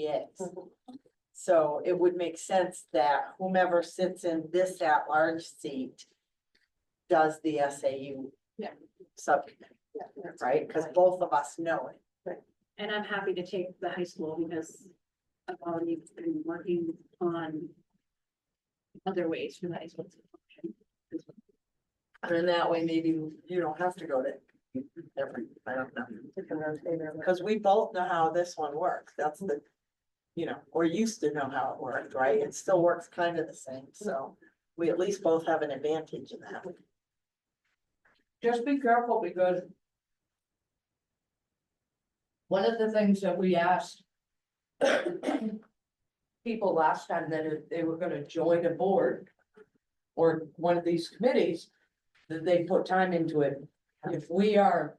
CBAs. So it would make sense that whomever sits in this at-large seat does the SAU Yeah. subcommittee, right? Because both of us know it. And I'm happy to take the high school because I've already been working on other ways for the high school to function. And that way, maybe you don't have to go to every, I don't know. Because we both know how this one works. That's the, you know, or used to know how it worked, right? It still works kind of the same, so we at least both have an advantage in that. just be careful because. One of the things that we asked. People last time that if they were gonna join a board. Or one of these committees, that they put time into it, if we are.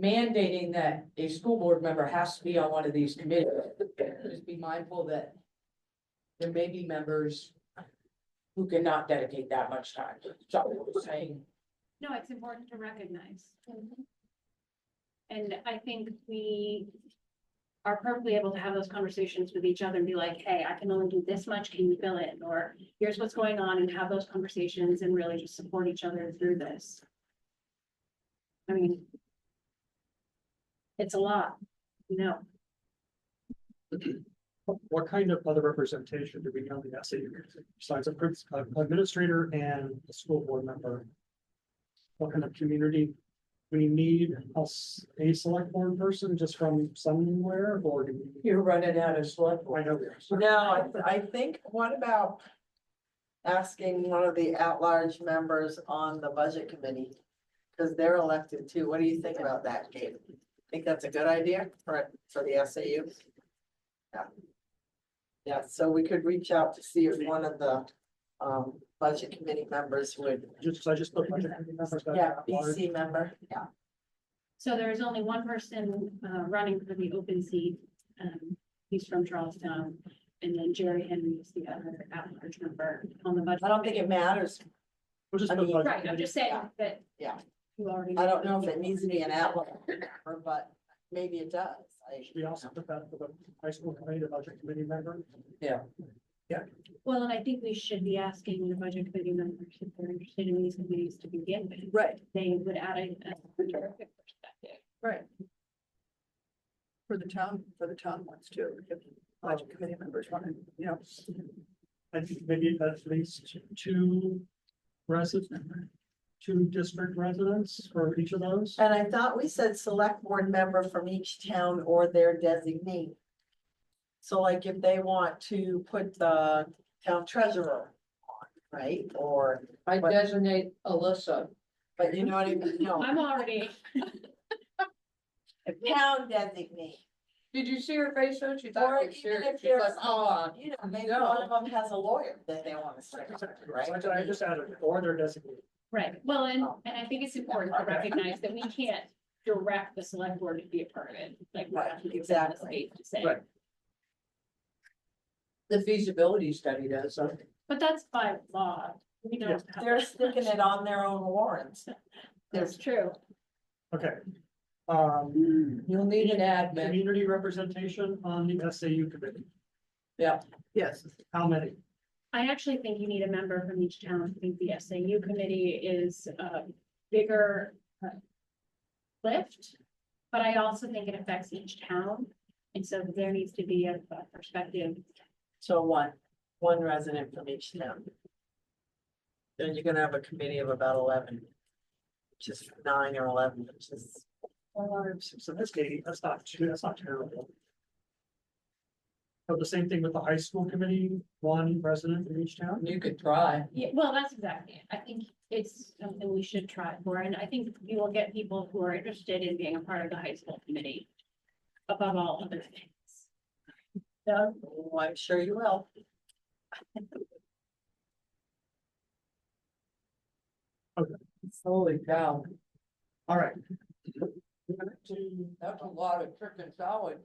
Mandating that a school board member has to be on one of these committees, just be mindful that. There may be members. Who cannot dedicate that much time, so I was saying. No, it's important to recognize. And I think we are perfectly able to have those conversations with each other and be like, hey, I can only do this much, can you fill in? Or here's what's going on and have those conversations and really just support each other through this. I mean, it's a lot, you know, What- What kind of other representation do we have in the SAU besides a prin- a administrator and a school board member? What kind of community we need a s- a select board person just from somewhere or do we? You're running out of select I board. know there's. No, I, I think, what about asking one of the at-large members on the budget committee? Cause they're elected too. What do you think about that, Kate? Think that's a good idea for, for the SAU? Yeah. Yeah, so we could reach out to see if one of the, um, budget committee members would, Just, I just put. budget committee members that yeah, are large. BC member, yeah. so there is only one person uh running for the open seat. Um, he's from Charlestown, and then Jerry Henry is the other at-large member on the budget. I don't think it matters. We'll just I put mean- budget Right, I'm committee. just saying that. Yeah. You already. I don't know if it needs to be an at-large member, but maybe it does. I- Should we also put that for the high school committee, the budget committee member? Well, and I think we should be asking the budget committee members if they're interested in these committees to begin with. Right. They would add a. a terrific perspective. For the town, for the town ones too, if budget committee members want to, you know. I think maybe at least two residents, two district residents for each of those. And I thought we said select board member from each town or their designee. So like if they want to put the town treasurer on, right, or, I designate Alyssa. but you know what I mean, no, I'm already, a town designee. Did you see her face though? She Or thought. she was even if serious. She's like, there's, uh, oh, you know, maybe one of them has a lawyer that they want to stick with, right? Right, I just added, or they're designated. right, well, and, and I think it's important to recognize that we can't direct the select board to be a part of it, like. we have Right, to do within the exactly. state To say, Right. the feasibility study does, so. but that's by law, we Yeah. don't. have- They're sticking it on their own warrants. That's true. Okay. Um, You'll need an admin. community representation on the SAU committee, Yes. how many? I actually think you need a member from each town. I think the SAU committee is a bigger uh, lift. But I also think it affects each town. And so there needs to be a a perspective. So one, one resident from each town. Then you're gonna have a committee of about eleven. Just nine or eleven, which is, So that's eight, that's not two, that's not terrible. So the same thing with the high school committee, one resident in each town, You could try. Yeah, well, that's exactly it. I think it's something we should try for. And I think you will get people who are interested in being a part of the high school committee. Above all other things. So, oh, I'm sure you will. Holy cow, all right. that's a lot of chicken salad.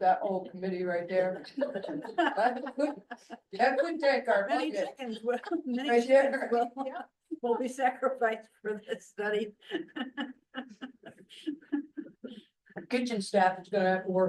That whole committee right there. That could- that could take our Many budget. chickens will, many Right chickens there. will, will be sacrificed for this study. Kitchen staff is gonna have to work